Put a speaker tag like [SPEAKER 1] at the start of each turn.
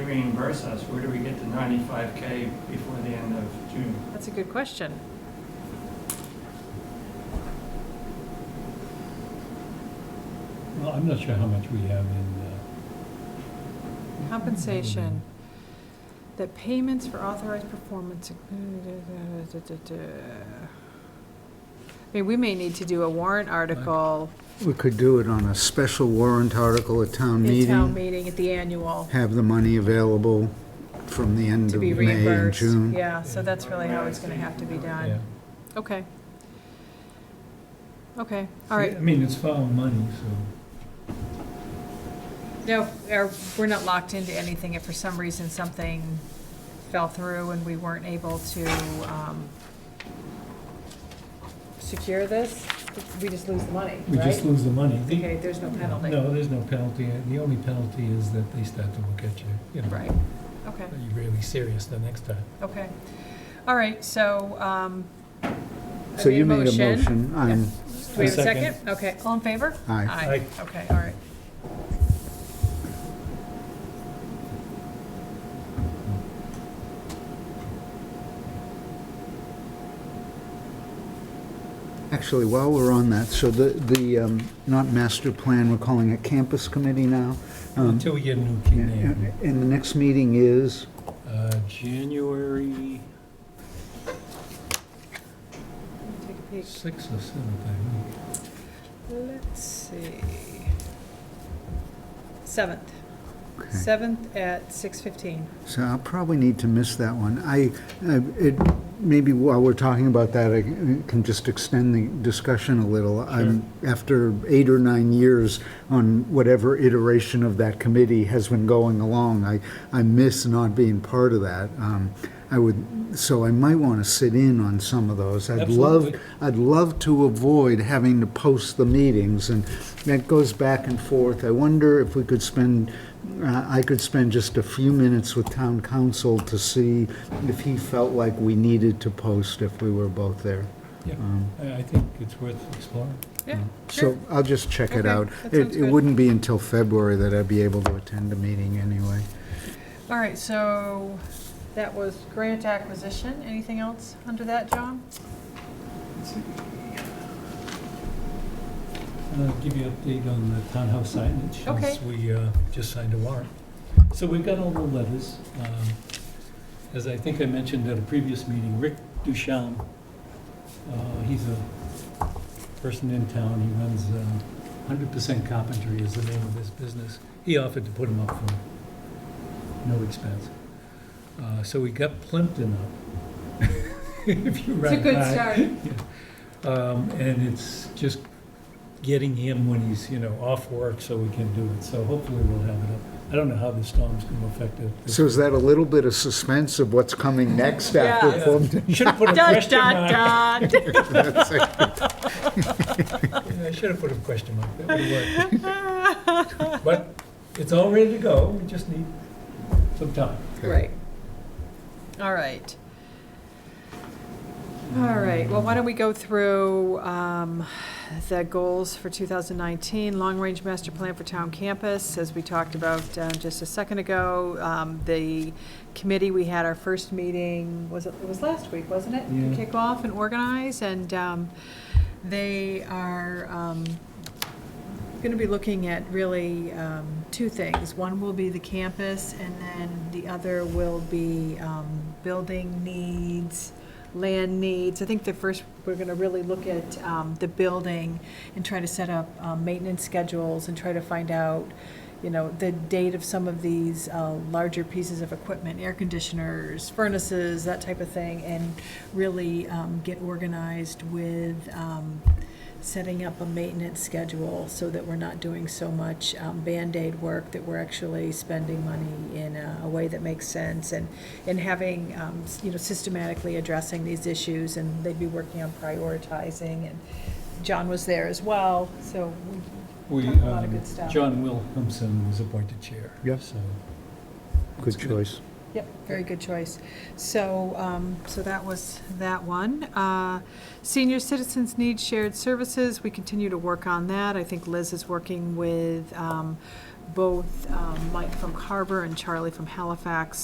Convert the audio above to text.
[SPEAKER 1] reimburse us, where do we get the ninety-five K before the end of June?
[SPEAKER 2] That's a good question.
[SPEAKER 3] Well, I'm not sure how much we have in, uh,
[SPEAKER 2] Compensation. That payments for authorized performance. I mean, we may need to do a warrant article
[SPEAKER 4] We could do it on a special warrant article at town
[SPEAKER 2] in town
[SPEAKER 4] meeting,
[SPEAKER 2] meeting at the annual
[SPEAKER 4] have the money available from the end
[SPEAKER 2] to
[SPEAKER 4] of
[SPEAKER 2] be
[SPEAKER 4] May and
[SPEAKER 2] reimbursed.
[SPEAKER 4] June.
[SPEAKER 2] Yeah, so that's really how it's gonna have to be
[SPEAKER 3] yeah.
[SPEAKER 2] done. Okay. Okay, all right.
[SPEAKER 3] I mean, it's foul money, so.
[SPEAKER 2] No, our- we're not locked into anything. If for some reason something fell through and we weren't able to um, secure this, we just lose the money,
[SPEAKER 3] We just
[SPEAKER 2] right?
[SPEAKER 3] lose the money. The-
[SPEAKER 2] Okay, there's no penalty.
[SPEAKER 3] No, there's no penalty. The only penalty is that they start to look at you, you know.
[SPEAKER 2] Right, okay,
[SPEAKER 3] Are you really serious the next time?
[SPEAKER 2] okay. All right, so um, I
[SPEAKER 4] So you made a
[SPEAKER 2] motion.
[SPEAKER 4] motion, I'm,
[SPEAKER 2] Do we have a
[SPEAKER 3] A second.
[SPEAKER 2] second? Okay, all in favor?
[SPEAKER 4] aye.
[SPEAKER 2] Aye. Okay, all right.
[SPEAKER 4] Actually, while we're on that, so the, the, um, not master plan, we're calling it campus committee now. Um,
[SPEAKER 3] Until we get a new key
[SPEAKER 4] And
[SPEAKER 3] name.
[SPEAKER 4] and the next meeting is,
[SPEAKER 3] Uh, January
[SPEAKER 2] Take a peek.
[SPEAKER 3] sixth or seventh, I think.
[SPEAKER 2] Let's see. Seventh,
[SPEAKER 4] okay.
[SPEAKER 2] seventh at six fifteen.
[SPEAKER 4] So I'll probably need to miss that one. I, I- Uh, it, maybe while we're talking about that, I can just extend the discussion a little. I'm After eight or nine years on whatever iteration of that committee has been going along, I, I miss not being part of that. Um, I would, so I might want to sit in on some of those. I'd love,
[SPEAKER 3] Absolutely.
[SPEAKER 4] I'd love to avoid having to post the meetings, and that goes back and forth. I wonder if we could spend, uh, I could spend just a few minutes with town council to see if he felt like we needed to post if we were both there.
[SPEAKER 3] Yeah.
[SPEAKER 4] Um,
[SPEAKER 3] I, I think it's worth exploring.
[SPEAKER 2] Yeah, sure.
[SPEAKER 4] So I'll just check it
[SPEAKER 2] Okay,
[SPEAKER 4] out.
[SPEAKER 2] that
[SPEAKER 4] It-
[SPEAKER 2] sounds
[SPEAKER 4] It
[SPEAKER 2] good.
[SPEAKER 4] wouldn't be until February that I'd be able to attend a meeting anyway.
[SPEAKER 2] All right, so that was grant acquisition. Anything else under that, John?
[SPEAKER 3] And I'll Uh, give you an update on the townhouse signage,
[SPEAKER 2] Okay.
[SPEAKER 3] since we uh, just signed a warrant. So we've got all the letters. Um, As I think I mentioned at a previous meeting, Rick Duchamp, uh, he's a person in town, he runs uh, 100% Carpentry is the name of his business. He offered to put him up for no expense. Uh, So we got Plimpton up. If you
[SPEAKER 2] It's a
[SPEAKER 3] run
[SPEAKER 2] good
[SPEAKER 3] high.
[SPEAKER 2] start.
[SPEAKER 3] Um, and it's just getting him when he's, you know, off work so we can do it. So hopefully we'll have it up. I don't know how the storm's gonna affect it.
[SPEAKER 4] So is that a little bit of suspense of what's coming next after
[SPEAKER 2] Yeah.
[SPEAKER 4] Plimpton?
[SPEAKER 3] Should've put a
[SPEAKER 2] Dot,
[SPEAKER 3] question
[SPEAKER 2] dot,
[SPEAKER 3] mark.
[SPEAKER 2] dot.
[SPEAKER 3] Yeah, I should've put a question mark. That would've worked. But it's all ready to go. We just need some time.
[SPEAKER 2] Right. All right. All right, well, why don't we go through um, the goals for 2019, long-range master plan for town campus, as we talked about uh, just a second ago. Um, The committee, we had our first meeting, was it, it was last week, wasn't it?
[SPEAKER 3] Yeah.
[SPEAKER 2] To kick off and organize, and um, they are going to be looking at really um, two things. One will be the campus, and then the other will be um, building needs, land needs. I think the first, we're going to really look at um, the building and try to set up um, maintenance schedules and try to find out, you know, the date of some of these uh, larger pieces of equipment, air conditioners, furnaces, that type of thing, and really um, get organized with um, setting up a maintenance schedule so that we're not doing so much um, Band-Aid work, that we're actually spending money in a a way that makes sense, and, and having, um, s- you know, systematically addressing these issues, and they'd be working on prioritizing, and John was there as well, so
[SPEAKER 3] We,
[SPEAKER 2] Talked a lot of
[SPEAKER 3] um,
[SPEAKER 2] good stuff.
[SPEAKER 3] John Williamson was appointed chair.
[SPEAKER 4] Yeah.
[SPEAKER 3] So
[SPEAKER 4] Good choice.
[SPEAKER 2] Yep, very good choice. So, um, so that was that one. Uh, Senior citizens need shared services. We continue to work on that. I think Liz is working with um, both um, Mike from Carver and Charlie from Halifax